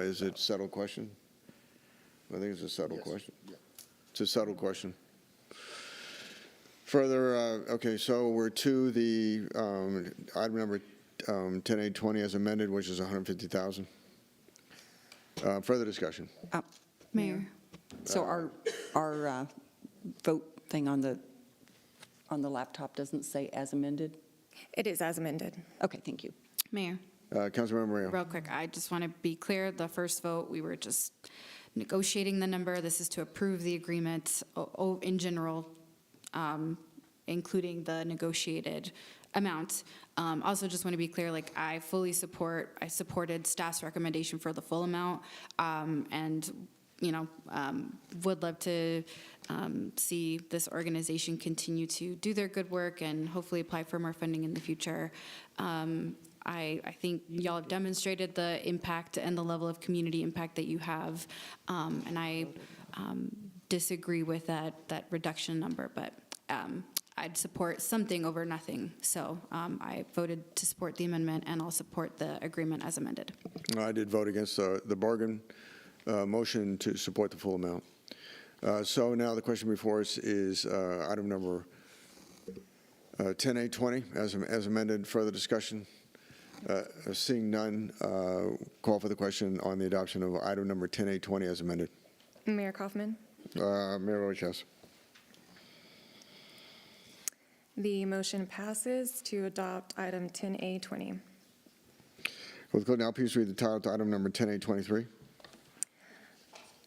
Is it subtle question? I think it's a subtle Yes, question. yeah. It's a subtle question. Further, uh, okay, so we're to the um, item number um, 10820 as amended, which is 150,000. Uh, Further discussion. Uh, Mayor, so our, our uh, vote thing on the, on the laptop doesn't say as amended? It is as amended. Okay, thank you. Mayor, Uh, Councilmember Moreno. real quick, I just want to be clear, the first vote, we were just negotiating the number. This is to approve the agreement o- o- in general, um, including the negotiated amount. Um, Also, just want to be clear, like, I fully support, I supported staff's recommendation for the full amount, um, and, you know, um, would love to um, see this organization continue to do their good work and hopefully apply for more funding in the future. Um, I, I think y'all have demonstrated the impact and the level of community impact that you have, um, and I um, disagree with that, that reduction number, but um, I'd support something over nothing. So um, I voted to support the amendment, and I'll support the agreement as amended. I did vote against the the bargain uh, motion to support the full amount. Uh, So now the question before us is uh, item number Uh, 10820, as am- as amended, further discussion? Uh, Seeing none, uh, call for the question on the adoption of item number 10820 as amended. Mayor Kaufman, Uh, Mayor Roach, yes. the motion passes to adopt item 10A20. Will the clerk now please read the title to item number 10823?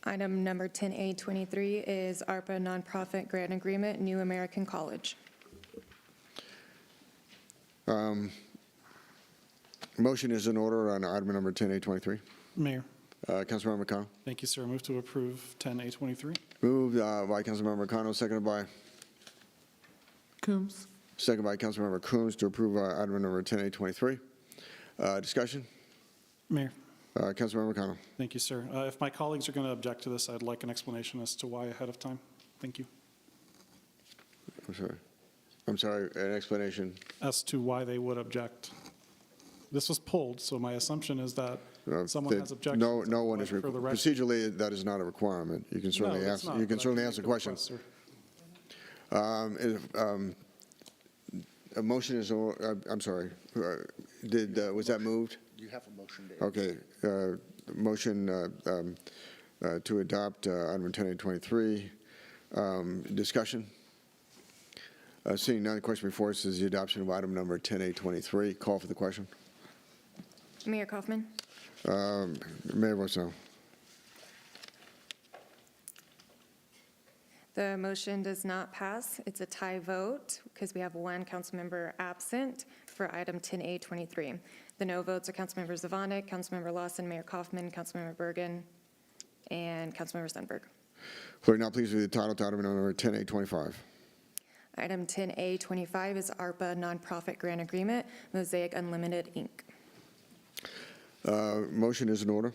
Item number 10A23 is ARPA Nonprofit Grant Agreement, New American College. Motion is in order on item number 10823. Mayor, Uh, Councilmember McConnell. thank you, sir. Move to approve 10A23. Moved uh, by Councilmember McConnell, seconded by? Coombs. Seconded by Councilmember Coombs to approve uh, item number 10823. Uh, Discussion? Mayor, Uh, Councilmember McConnell. thank you, sir. Uh, If my colleagues are going to object to this, I'd like an explanation as to why ahead of time. Thank you. I'm sorry. I'm sorry, an explanation. As to why they would object. This was pulled, so my assumption is that Uh, someone that has objections. No, I'd no one like is, further requ- rec- procedurally, that is not a requirement. You can No, certainly it's ask, not, you can but I certainly can ask the make question. request, sir. Um, if, um, A motion is, or- uh, I'm sorry, Uh, did, uh, was that moved? You have a motion to. Okay, uh, motion uh, um, uh, to adopt uh, item 1023. Um, Discussion? Uh, Seeing none, the question before us is the adoption of item number 10823. Call for the question. Mayor Kaufman, Um, Mayor votes no. the motion does not pass. It's a tie vote because we have one council member absent for item 10A23. The no votes are Councilmember Zavonic, Councilmember Lawson, Mayor Kaufman, Councilmember Bergen, and Councilmember Sundberg. Clerk, now please read the title to item number 10825. Item 10A25 is ARPA Nonprofit Grant Agreement, Mosaic Unlimited, Inc. Uh, Motion is in order.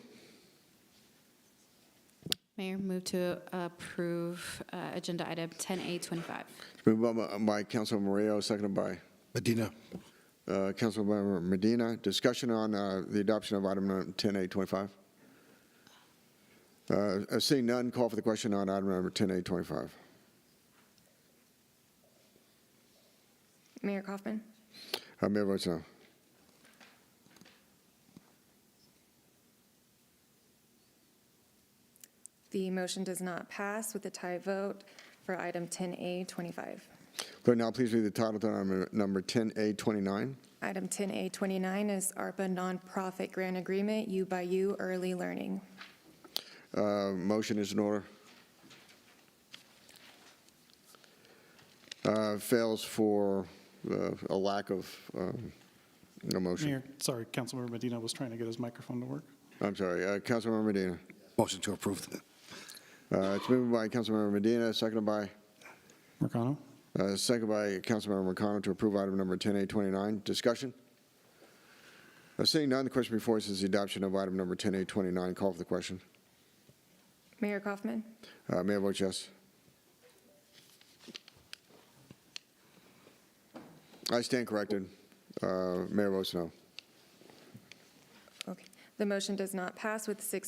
Mayor, move to approve uh, Agenda Item 10A25. It's been moved by- by Councilman Moreo, seconded by Medina. uh, Councilmember Medina. Discussion on uh, the adoption of item number 10825. Uh, uh, Seeing none, call for the question on item number 10825. Mayor Kaufman, Uh, Mayor votes no. the motion does not pass with a tie vote for item 10A25. Clerk, now please read the title to item number 10A29. Item 10A29 is ARPA Nonprofit Grant Agreement, U by U Early Learning. Uh, Motion is in order. Uh, Fails for uh, a lack of um, no motion. Mayor, sorry, Councilmember Medina was trying to get his microphone to work. I'm sorry, uh, Councilmember Medina. Motion to approve. Uh, It's moved by Councilmember Medina, seconded by, Mercano? uh, seconded by Councilmember McConnell to approve item number 10829. Discussion? Uh, Seeing none, the question before us is the adoption of item number 10829. Call for the question. Mayor Kaufman, Uh, Mayor votes yes. I stand corrected. Uh, Mayor votes no. okay. The motion does not pass with six